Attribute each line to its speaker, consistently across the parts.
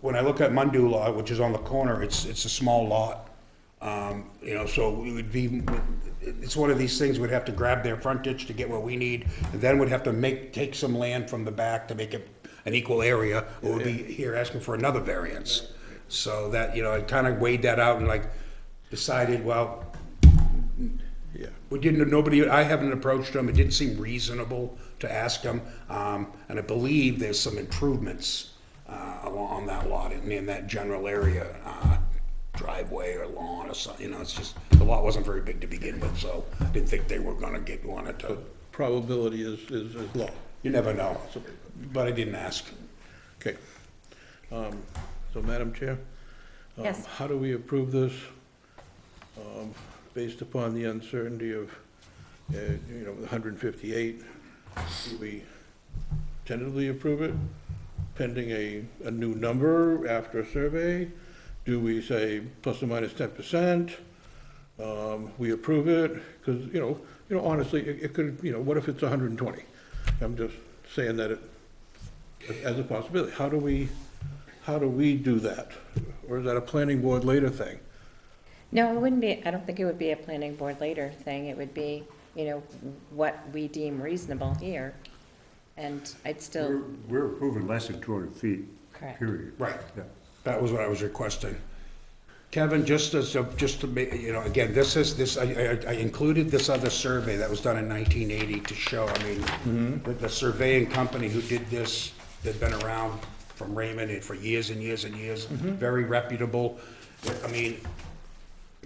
Speaker 1: When I look at Mundu Lot, which is on the corner, it's, it's a small lot. Um, You know, so it would be, it's one of these things, we'd have to grab their frontage to get what we need, and then we'd have to make, take some land from the back to make it an equal area, or we'd be here asking for another variance. So that, you know, I kind of weighed that out and like decided, well, we didn't, nobody, I haven't approached them, it didn't seem reasonable to ask them. Um, and I believe there's some improvements, uh, along on that lot and in that general area, uh, driveway or lawn or something, you know, it's just, the lot wasn't very big to begin with, so I didn't think they were gonna get, wanted to,
Speaker 2: probability is, is, is low.
Speaker 1: you never know, but I didn't ask.
Speaker 2: Okay. Um, So Madam Chair? um,
Speaker 3: Yes.
Speaker 2: How do we approve this um, based upon the uncertainty of, uh, you know, 158? Do we tentatively approve it pending a, a new number after a survey? Do we say plus or minus 10%? Um, We approve it, because, you know, you know, honestly, it it could, you know, what if it's 120? I'm just saying that it as a possibility. How do we, how do we do that? Or is that a planning board later thing?
Speaker 3: No, it wouldn't be, I don't think it would be a planning board later thing. It would be, you know, what we deem reasonable here. And I'd
Speaker 4: We're
Speaker 3: still,
Speaker 4: we're approving less than 200 feet,
Speaker 3: Correct.
Speaker 4: period.
Speaker 1: Right.
Speaker 4: Yeah.
Speaker 1: That was what I was requesting. Kevin, just as, a- just to make, you know, again, this is, this, I, I- I included this other survey that was done in nineteen eighty to show, I
Speaker 2: Mm-hmm.
Speaker 1: mean, the, the surveying company who did this, they've been around from Raymond and for years and years and years,
Speaker 2: Mm-hmm.
Speaker 1: very reputable. I mean,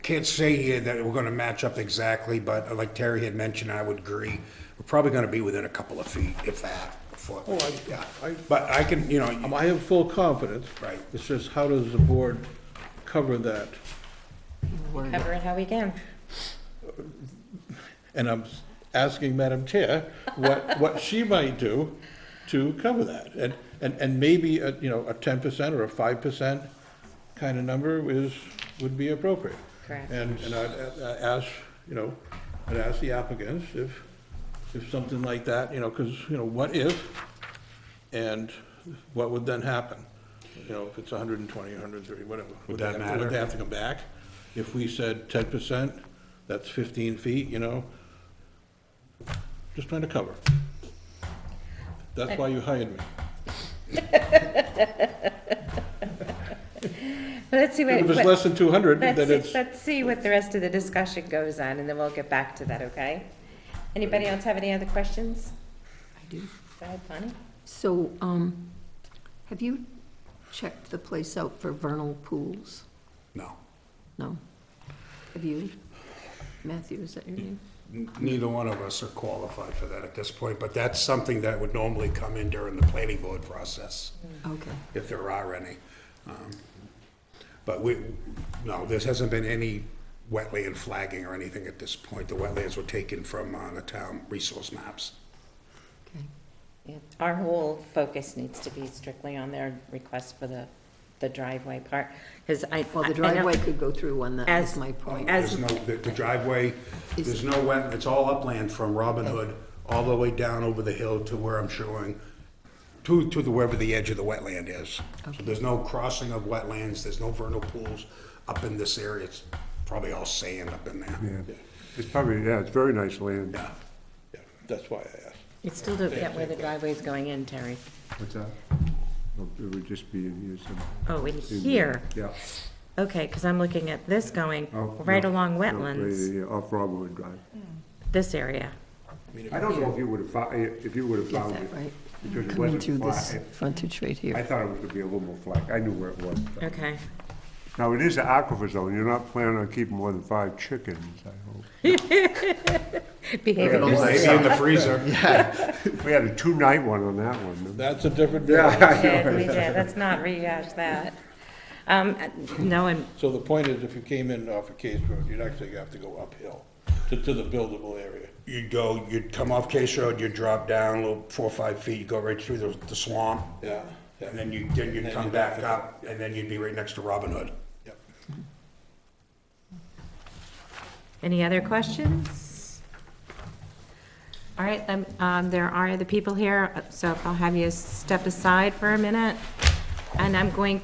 Speaker 1: can't say here that we're gonna match up exactly, but like Terry had mentioned, I would agree, we're probably gonna be within a couple of feet, if that, a foot.
Speaker 2: Oh, I- I-
Speaker 1: But I can, you know.
Speaker 2: Um, I have full confidence.
Speaker 1: Right.
Speaker 2: It's just how does the board cover that?
Speaker 3: cover it how we can.
Speaker 2: And I'm asking Madam Chair what, what she might do to cover that. And, and, and maybe, a you know, a ten percent or a five percent kind of number is, would be appropriate.
Speaker 3: Correct.
Speaker 2: And, and I'd a- a- ask, you know, I'd ask the applicants if, if something like that, you know, because, you know, what if? And what would then happen? You know, if it's hundred and twenty, hundred and thirty, whatever.
Speaker 1: Would that
Speaker 2: they have-
Speaker 1: matter?
Speaker 2: Would they have to come back? If we said ten percent, that's fifteen feet, you know? Just trying to cover. That's why you hired me.
Speaker 3: But let's see what.
Speaker 2: If it's
Speaker 3: what-
Speaker 2: less than two hundred, then
Speaker 3: Let's,
Speaker 2: it's,
Speaker 3: let's see what the rest of the discussion goes on, and then we'll get back to that, okay? Anybody else have any other questions?
Speaker 5: I do.
Speaker 3: Go ahead, Bonnie.
Speaker 5: So, um, have you checked the place out for vernal pools?
Speaker 1: No.
Speaker 5: No? Have you? Matthew, is that your name?
Speaker 1: Neither one of us are qualified for that at this point, but that's something that would normally come in during the planning board process,
Speaker 5: Okay,
Speaker 1: if there are any. Um, But we, no, there hasn't been any wetland flagging or anything at this point. The wetlands were taken from uh, the town resource maps.
Speaker 5: okay.
Speaker 3: Yeah, Our whole focus needs to be strictly on their request for the, the driveway part, because I.
Speaker 5: Well,
Speaker 3: I- I
Speaker 5: the
Speaker 3: know-
Speaker 5: driveway could go through one, that
Speaker 3: As-
Speaker 5: was my point.
Speaker 3: as-
Speaker 1: There's no, the the driveway, there's no wet, it's all upland from Robin Hood all the way down over the hill to where I'm showing, to, to the, wherever the edge of the wetland is. So there's no crossing of wetlands, there's no vernal pools up in this area, it's probably all sand up in there.
Speaker 4: Yeah. It's probably, yeah, it's very nice land.
Speaker 1: Yeah.
Speaker 2: yeah, that's why I asked.
Speaker 3: You still don't get where the driveway's going in, Terry.
Speaker 4: What's that? Well, It would just be in here some.
Speaker 3: Oh, in here,
Speaker 4: Yeah.
Speaker 3: okay, because I'm looking at this going
Speaker 4: Oh,
Speaker 3: right
Speaker 4: no,
Speaker 3: along
Speaker 4: no,
Speaker 3: wetlands,
Speaker 4: yeah, yeah, Off Robinwood Drive.
Speaker 3: this area.
Speaker 4: I don't know if you would have, fou- if you would have
Speaker 5: Is
Speaker 4: found
Speaker 5: that
Speaker 4: it.
Speaker 5: right?
Speaker 4: because it
Speaker 5: Coming
Speaker 4: wasn't
Speaker 5: through this
Speaker 4: flat.
Speaker 5: frontage right
Speaker 4: I
Speaker 5: here.
Speaker 4: thought it was going to be a little more flat. I knew where it was.
Speaker 3: Okay.
Speaker 4: Now, it is an aquifer zone. You're not planning on keeping more than five chickens, I hope.
Speaker 3: Behavior
Speaker 1: Maybe in the freezer.
Speaker 4: We had a two-night one on that one.
Speaker 2: That's a different.
Speaker 3: did, we did, let's not rehash that. Um, no, and,
Speaker 2: So the point is, if you came in off of Case Road, you'd actually have to go uphill to, to the buildable area.
Speaker 1: You'd go, you'd come off Case Road, you'd drop down a little four or five feet, you go right through the the swamp.
Speaker 2: Yeah, yeah.
Speaker 1: And then you, then you'd
Speaker 2: Then
Speaker 1: come
Speaker 2: you'd-
Speaker 1: back up, and then you'd be right next to Robin Hood.
Speaker 2: Yep.
Speaker 3: any other questions? All right, um, um, there are other people here, so if I'll have you step aside for a minute. And I'm going